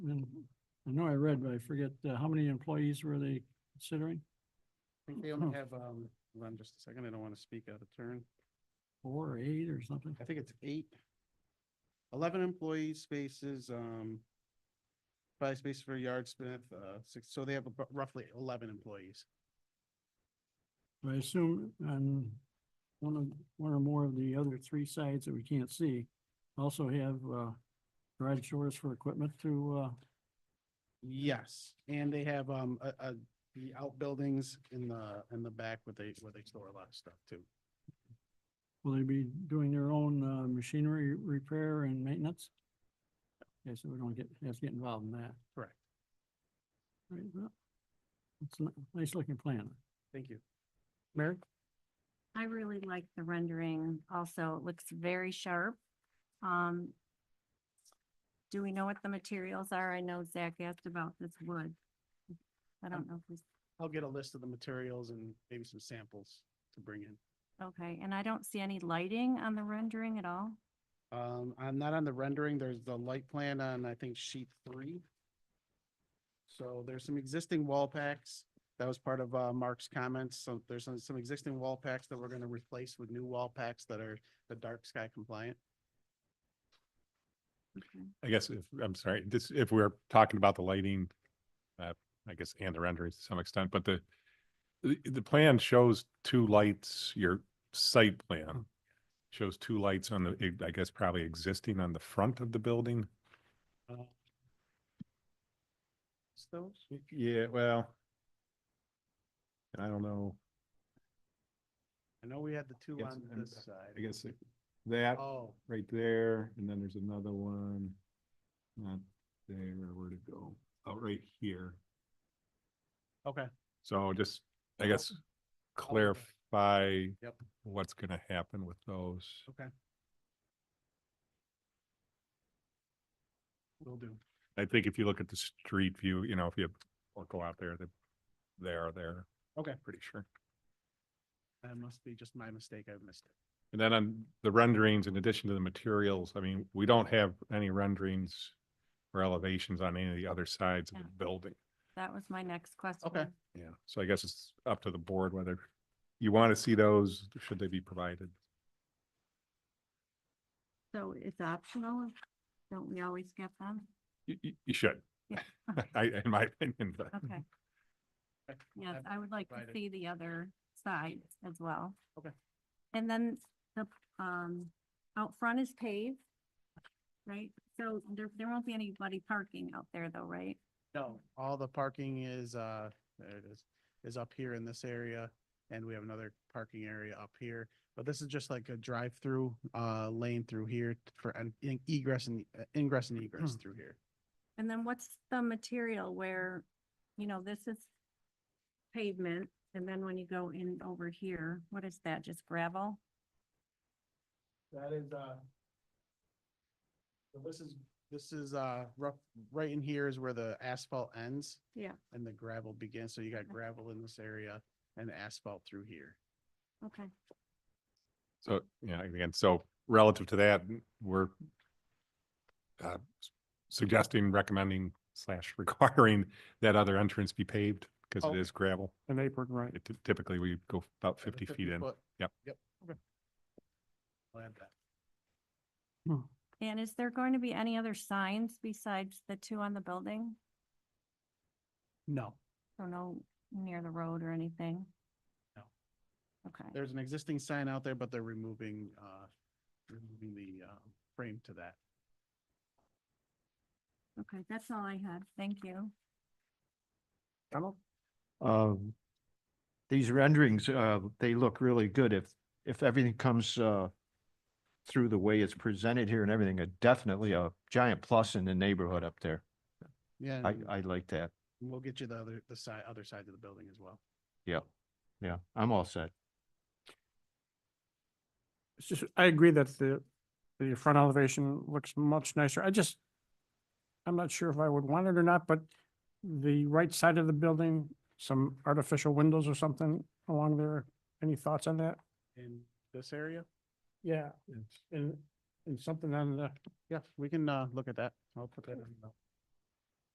And I know I read, but I forget, uh, how many employees were they considering? I think they only have, um, hold on just a second, I don't want to speak out of turn. Four or eight or something? I think it's eight. Eleven employee spaces, um, five spaces for yardsmith, uh, six, so they have abo- roughly eleven employees. But I assume on one of, one or more of the other three sides that we can't see, also have, uh, garage doors for equipment to, uh, Yes, and they have, um, a, a, the outbuildings in the, in the back where they, where they store a lot of stuff too. will they be doing their own, uh, machinery repair and maintenance? Okay, so we don't get, have to get involved in that. Correct. Right, well, it's a nice looking plan. Thank you. Mary? I really like the rendering also. It looks very sharp. Um, do we know what the materials are? I know Zach asked about this wood. I don't know if we, I'll get a list of the materials and maybe some samples to bring in. okay, and I don't see any lighting on the rendering at all. Um, I'm not on the rendering. There's the light plan on, I think, sheet three. So there's some existing wall packs. That was part of, uh, Mark's comments. So there's some, some existing wall packs that we're gonna replace with new wall packs that are the dark sky compliant. Okay. I guess if, I'm sorry, this, if we're talking about the lighting, uh, I guess, and the rendering to some extent, but the, the, the plan shows two lights, your site plan shows two lights on the, I guess, probably existing on the front of the building. Uh, it's Those, Yeah, well. I don't know, I know we had the two Yes, on and this I side. guess that Oh, right there, and then there's another one. Not there, where to go, out right here. okay. So just, I Yeah. guess, Outline. clarify Yep. what's gonna happen with those. Okay. Will do. I think if you look at the street view, you know, if you or go out there, they, they are there, Okay, pretty sure. that must be just my mistake. I missed it. And then on the renderings, in addition to the materials, I mean, we don't have any renderings or elevations on any of the other sides of the Yeah. building. That was my next question. Yeah, so I guess it's up to the board whether you want to see those, should they be provided? So it's optional? Don't we always get them? You, you, you should. Yeah. I, in my opinion, but. Okay. Okay. Yes, Ab- I would like to provided. see the other side as well. Okay. And then the, um, out front is paved, right? So there, there won't be anybody parking out there though, right? No, all the parking is, uh, there it is, is up here in this area. And we have another parking area up here, but this is just like a drive-through, uh, lane through here for an in- egress and uh, ingress and egress through here. And then what's the material where, you know, this is pavement, and then when you go in over here, what is that, just gravel? That is, uh, so this is, this is, uh, rough, right in here is where the asphalt ends. Yeah. And the gravel begins. So you got gravel in this area and asphalt through here. Okay, So, yeah, again, so relative to that, we're uh, s- suggesting, recommending slash requiring that other entrance be paved because Oh. it is gravel. And apron, right? It ty- Typically, we go about fifty feet in. Yep. Yep. Okay. I'll add that. and is there going to be any other signs besides the two on the building? No. So no near the road or anything? No. Okay. There's an existing sign out there, but they're removing, uh, removing the, uh, frame to that. Okay, that's all I had. Thank you. Um, these renderings, uh, they look really good. If, if everything comes, uh, through the way it's presented here and everything, uh, definitely a giant plus in the neighborhood up there. Yeah, I, and I like that. we'll get you the other, the side, other side of the building as well. Yeah. Yeah, I'm all set. it's just, I agree that the, the front elevation looks much nicer. I just, I'm not sure if I would want it or not, but the right side of the building, some artificial windows or something along there. Any thoughts on that? In this area? Yeah, and, and something on the, Yeah, we can, uh, look at that. I'll put that in. the-